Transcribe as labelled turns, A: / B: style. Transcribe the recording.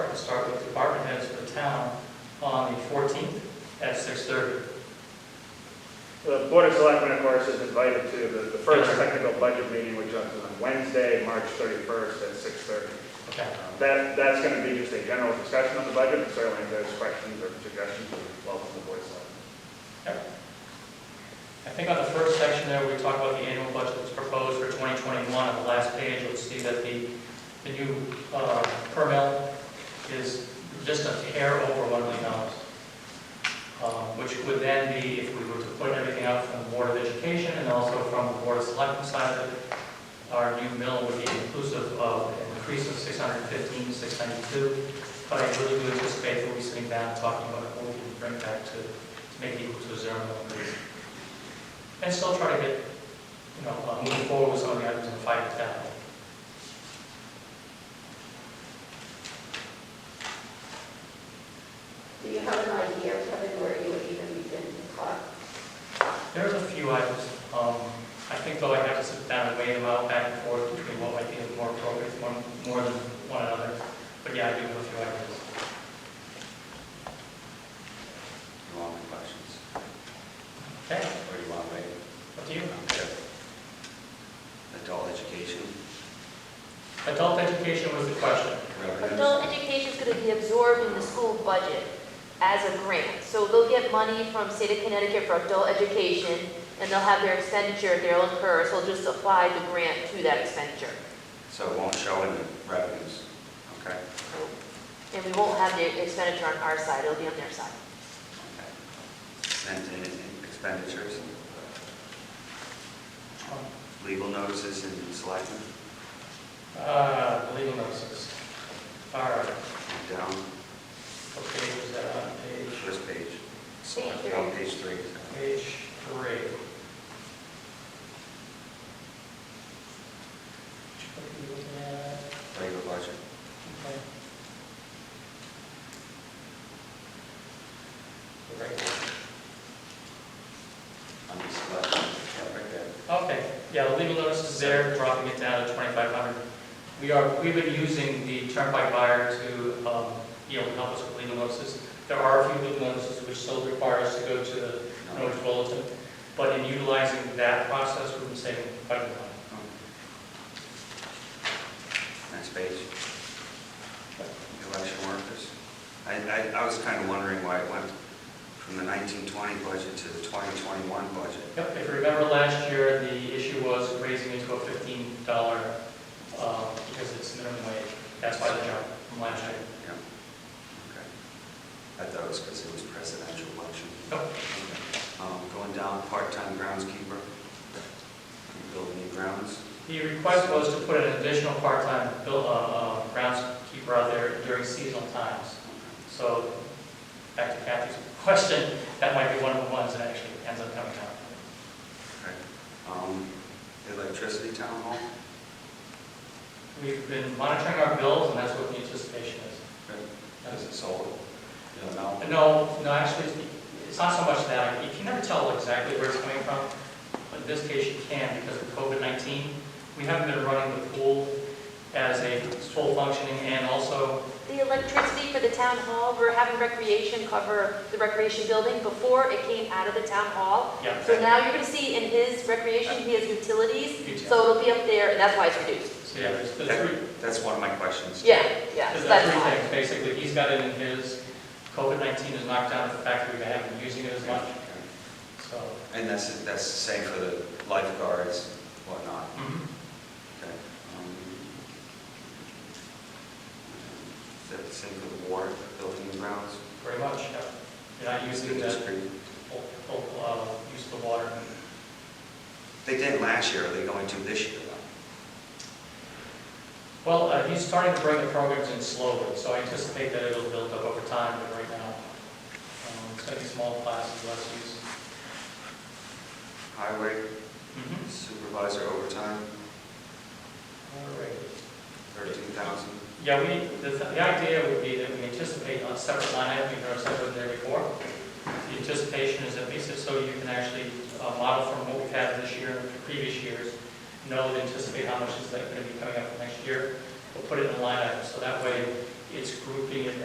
A: The Board of Selectmen, of course, is invited to the the first
B: Sure.
A: technical budget meeting, which is on Wednesday, March 31st at 6:30.
B: Okay,
A: Um, That, that's going to be just a general discussion of the budget, and certainly if there's questions or suggestions, we welcome the Board of Selectmen.
B: I think on the first section there, we talked about the annual budget that's proposed for 2021. On the last page, you'll see that the, the new uh, per mill is just a hair over $1 million, um, which would then be, if we were to put everything out from the Board of Education and also from the Board of Selectmen side of it, our new mill would be inclusive of an increase of 615 to 692. But I really do anticipate that we'll be sitting down and talking about what we can bring back to, to make it equal to a zero mill increase. And still try to get, you know, uh, moving forward with some of the items and fight it down.
C: Do you have an idea, Kevin, where you would even begin to cut?
B: There's a few items, um, I think though I have to sit down and weigh them out back and forth between what might be the more appropriate, one, more than one another. But yeah, I do have a few items.
D: You want my questions,
B: Okay,
D: or you want me?
B: up to you.
D: Adult education,
B: Adult education was the question.
D: revenues,
E: Adult education is going to be absorbed in the school budget as a grant. So they'll get money from state of Connecticut for adult education, and they'll have their expenditure they'll incur, so they'll just apply the grant to that expenditure.
D: so it won't show in the revenues, okay? Cool.
E: And we won't have the expenditure on our side, it'll be on their side.
D: Okay. And in- in expenditures,
B: Um,
D: legal notices and selectmen,
B: Uh, legal notices. All right,
D: and down,
B: what page is that on? uh, Page?
D: first page.
E: Thank you.
D: On page three. sorry.
B: Page three.
D: Labor budget, on the selectmen, yeah, right there.
B: Okay, yeah, the legal notice is there, dropping it down to 2,500. We are, we've been using the Turnpike buyer to, um, you know, help us with legal notices. There are a few legal notices which still require us to go to the
D: No.
B: notice bulletin, but in utilizing that process, we've been saving quite a lot.
D: Next page. Election workers. I, I, I was kind of wondering why it went from the 1920 budget to the 2021 budget.
B: Yep, if you remember last year, the issue was raising it to a fifteen dollar, um, because it's minimum wage. That's why the jump from last year.
D: Yeah. Okay. I thought it was because it was presidential election.
B: Nope.
D: Um, Going down, part-time groundskeeper, building new grounds.
B: The request was to put an additional part-time bill, uh, uh, groundskeeper out there during seasonal times. So, back to Kathy's question, that might be one of the ones that actually ends up coming out.
D: Okay. Um, Electricity town hall.
B: We've been monitoring our bills, and that's what the anticipation is.
D: Is it solar? You don't know?
B: No, no, actually, it's not so much that, you can never tell exactly where it's coming from, but in this case, you can, because of COVID-19, we haven't been running the pool as a full functioning, and also,
E: The electricity for the town hall, we're having recreation cover the recreation building. Before, it came out of the town hall.
B: yeah,
E: So now you're going to see in his recreation, he has utilities,
B: utilities.
E: so it'll be up there, and that's why it's reduced.
B: So, yeah, there's the
D: That-
B: three,
D: That's one of my questions.
E: Yeah, yeah,
B: there's
E: so
B: the
E: that's
B: three
E: why.
B: things, basically, he's got it in his, COVID-19 has knocked down the fact that we haven't been using it as much, so.
D: And that's, that's the same for the lifeguards, whatnot,
B: mhm.
E: Mm-hmm.
D: okay? Um, Is that the same for the water, building and grounds?
B: Very much, yeah. You're not using
D: It's
B: the,
D: pretty-
B: full- full, uh, use of the water.
D: They didn't last year, are they going to this year though?
B: Well, uh, he's starting to bring the programs in slowly, so I anticipate that it'll build up over time, but right now, um, it's going to be small classes, less use.
D: Highway Mm-hmm. supervisor overtime,
B: All right.
D: thirteen thousand.
B: Yeah, we, the the idea would be that we anticipate on separate line item, we've never separate there before. The anticipation is at least if so you can actually uh, model from what we've had this year and previous years, know and anticipate how much is that going to be coming up for next year, We'll put it in a line item, so that way it's grouping it